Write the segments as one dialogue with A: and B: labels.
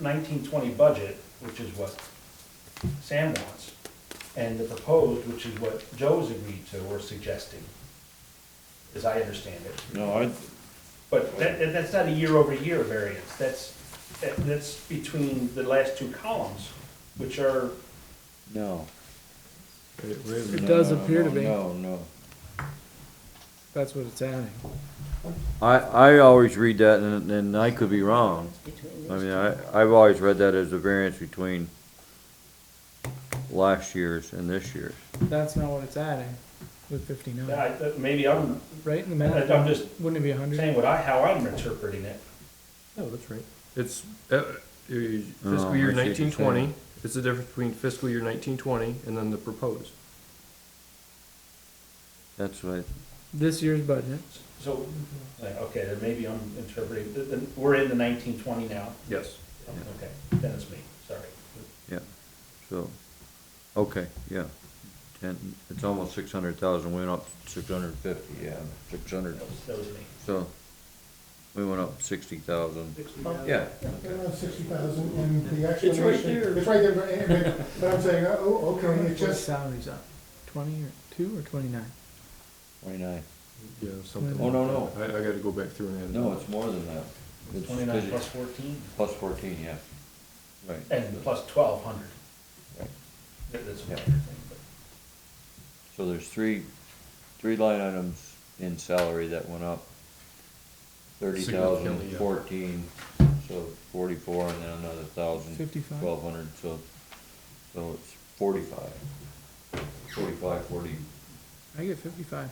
A: nineteen twenty budget, which is what Sam wants, and the proposed, which is what Joe's agreed to or suggesting, as I understand it.
B: No, I,
A: But that, that- that's not a year-over-year variance, that's, that- that's between the last two columns, which are,
B: no.
C: It does appear to be.
B: No, no.
C: That's what it's adding.
B: I, I always read that and, and I could be wrong.
D: between
B: I
D: these
B: mean, I, I've always read that as the variance between last year's and this year's.
C: That's not what it's adding with fifty-nine,
A: I- maybe I'm
C: right in the math?
A: I'm just-
C: Wouldn't it be a hundred?
A: saying what I, how I'm interpreting it.
E: No, Oh, that's right. It's, uh, uh, fiscal
B: Oh,
E: year
B: I see what you're
E: nineteen
B: saying.
E: twenty, it's the difference between fiscal year nineteen twenty and then the proposed.
B: That's what,
C: This year's budget,
A: So, like, okay, then maybe I'm interpreting, th- then we're in the nineteen twenty now,
E: Yes.
A: okay, then it's me, sorry.
B: yeah, so, okay, yeah. And it's almost six hundred thousand, went up six hundred and fifty, yeah, six hundred,
A: That was, that was me.
B: so, we went up sixty thousand, yeah.
F: Around sixty thousand, and the actual.
G: It's right
F: motion-
G: there.
F: It's right there, but- but, but I'm saying, oh, okay, it
C: what
F: just,
C: salary's up? Twenty or two or twenty-nine?
B: Twenty-nine.
E: Yeah, something.
C: Oh,
B: no,
E: like that. I, I gotta go back through and add it.
B: No,
E: up.
B: it's more than that. It's-
A: Twenty-nine plus fourteen,
B: Plus fourteen, yeah. Right.
A: and plus twelve hundred.
B: Right.
A: That's a
B: Yeah.
A: minor thing, but.
B: So there's three, three line items in salary that went up. Thirty thousand,
E: Significantly, yeah.
B: fourteen, so forty-four, and then another thousand.
C: 55?
B: Twelve hundred, so, so it's forty-five. Forty-five, forty,
C: I get fifty-five.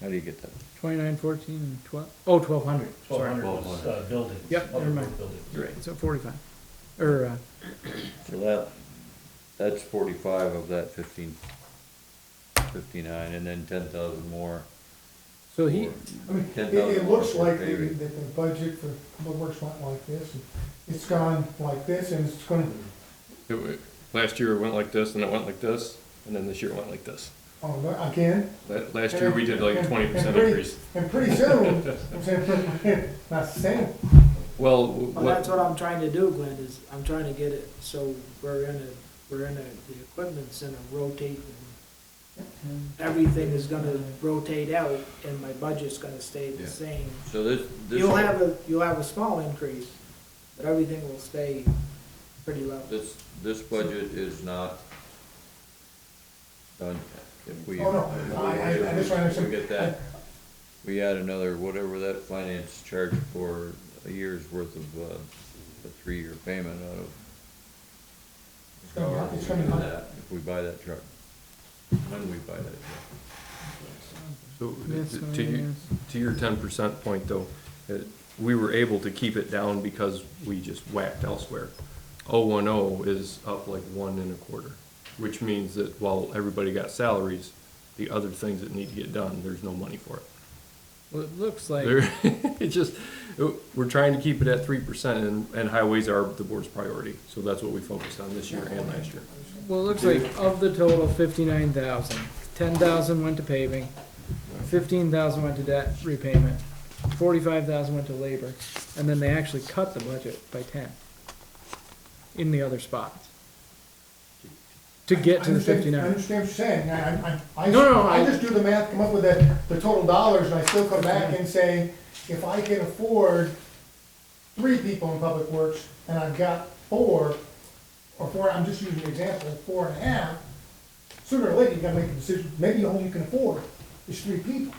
B: how do you get that?
C: Twenty-nine, fourteen, and twelve, oh, twelve hundred,
A: Twelve
C: sorry.
A: hundred was, uh, buildings.
C: Yep,
A: other
C: never mind.
A: buildings.
B: Right.
C: So forty-five, or, uh,
B: So that, that's forty-five of that fifteen, fifty-nine, and then ten thousand more.
C: so he,
B: for-
F: I mean, it,
B: 10,000
F: it looks
B: more
F: like
B: for
F: the,
B: paving.
F: that the budget for public works went like this, and it's gone like this, and it's gonna,
E: It wa- Last year it went like this, and it went like this, and then this year it went like this.
F: oh, no, again.
E: La- Last year we did like a
F: And-
E: twenty
F: and
E: percent
F: pretty-
E: increase.
F: And pretty soon, I'm saying, not saying,
E: Well, w-
G: Well, that's what
E: what,
G: I'm trying to do, Glenn, is I'm trying to get it, so we're in a, we're in a, the equipment center rotating. Everything is gonna rotate out and my budget's gonna stay the
B: Yeah.
G: same.
B: So this, this.
G: You'll have a, you'll have a small increase, but everything will stay pretty level.
B: This, this budget is not done yet. If we.
F: oh, no, I, I, I just trying to.
B: We get that, we add another, whatever that finance charge for a year's worth of, uh, a three-year payment out of.
F: It's gonna be-
B: however
F: it's
B: we
F: gonna be
B: do
F: high.
B: that, If we buy that truck, when we buy that truck.
E: so,
C: that's
E: to-
C: what
E: to
C: it
E: you,
C: is.
E: To your ten percent point though, it- we were able to keep it down because we just whacked elsewhere. Oh one oh is up like one and a quarter, which means that while everybody got salaries, the other things that need to get done, there's no money for it.
C: well, it looks like,
E: There, it just, uh, we're trying to keep it at three percent and, and highways are the board's priority, so that's what we focused on this year and last year.
C: well, it looks like of the total fifty-nine thousand, ten thousand went to paving, fifteen thousand went to debt repayment, forty-five thousand went to labor, and then they actually cut the budget by ten in the other spots to get to the
F: understand- I
C: fifty-nine.
F: understand what you're saying, I, I- I, I.
C: No, no,
F: I
C: I-
F: just do the math, come up with the, the total dollars, and I still come back and say, if I can afford three people in public works, and I've got four, or four, I'm just using an example, four and a half, sooner or later, you gotta make a decision, maybe all you can afford is three people.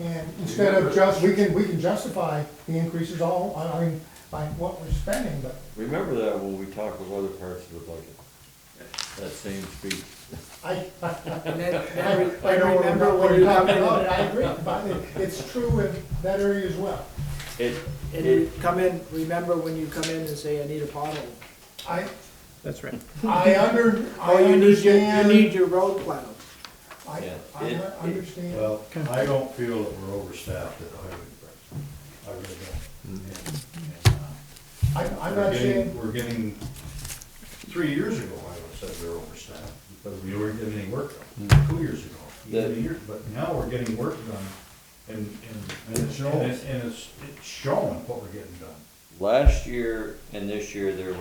F: And instead of just, we can, we can justify the increases all, I mean, by what we're spending, but
B: Remember that when we talk of other parts of the budget, that same speech.
F: I,
G: And then-
F: I
G: then re-
F: I
G: then
F: don't remember what you're
G: come
F: talking
G: in-
F: about, and I agree, but it- it's true in that area as well.
B: It,
G: And you come in, remember when you come in and say, I need a pothole.
F: I,
C: That's right.
F: I under, I
G: Or Oh, you need your, you need
F: understand,
G: your road plowed.
F: I,
B: Yeah.
F: I
B: It-
F: understand.
H: Well, I don't feel that we're overstaffed at the highway department. I really don't. And-
C: Mm-hmm.
H: and, uh,
F: I, I'm
H: we're
F: not
H: getting-
F: saying,
H: We're getting, three years ago, I would've said we were overstaffed, because we weren't getting any work done,
C: Mm.
H: two years ago, even a
B: That-
H: year, but now we're getting work done, and, and, and it's, and it- and it's, it's showing what we're getting done.
B: last year and this year, there